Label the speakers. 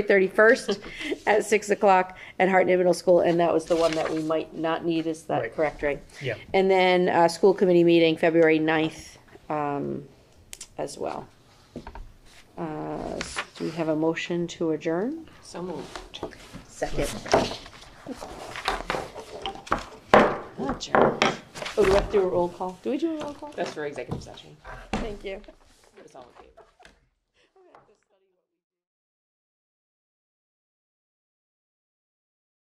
Speaker 1: 31st at 6 o'clock at Hartnett Middle School, and that was the one that we might not need, is that
Speaker 2: Right.
Speaker 1: correct, right?
Speaker 2: Yeah.
Speaker 1: And then, uh, school committee meeting, February 9th, um, as well. Uh, s- do we have a motion to adjourn?
Speaker 3: So moved.
Speaker 1: Second. Oh, do we have to do a roll call? Do we do a roll call?
Speaker 3: That's for executive session.
Speaker 1: Thank you.
Speaker 3: It's all in favor.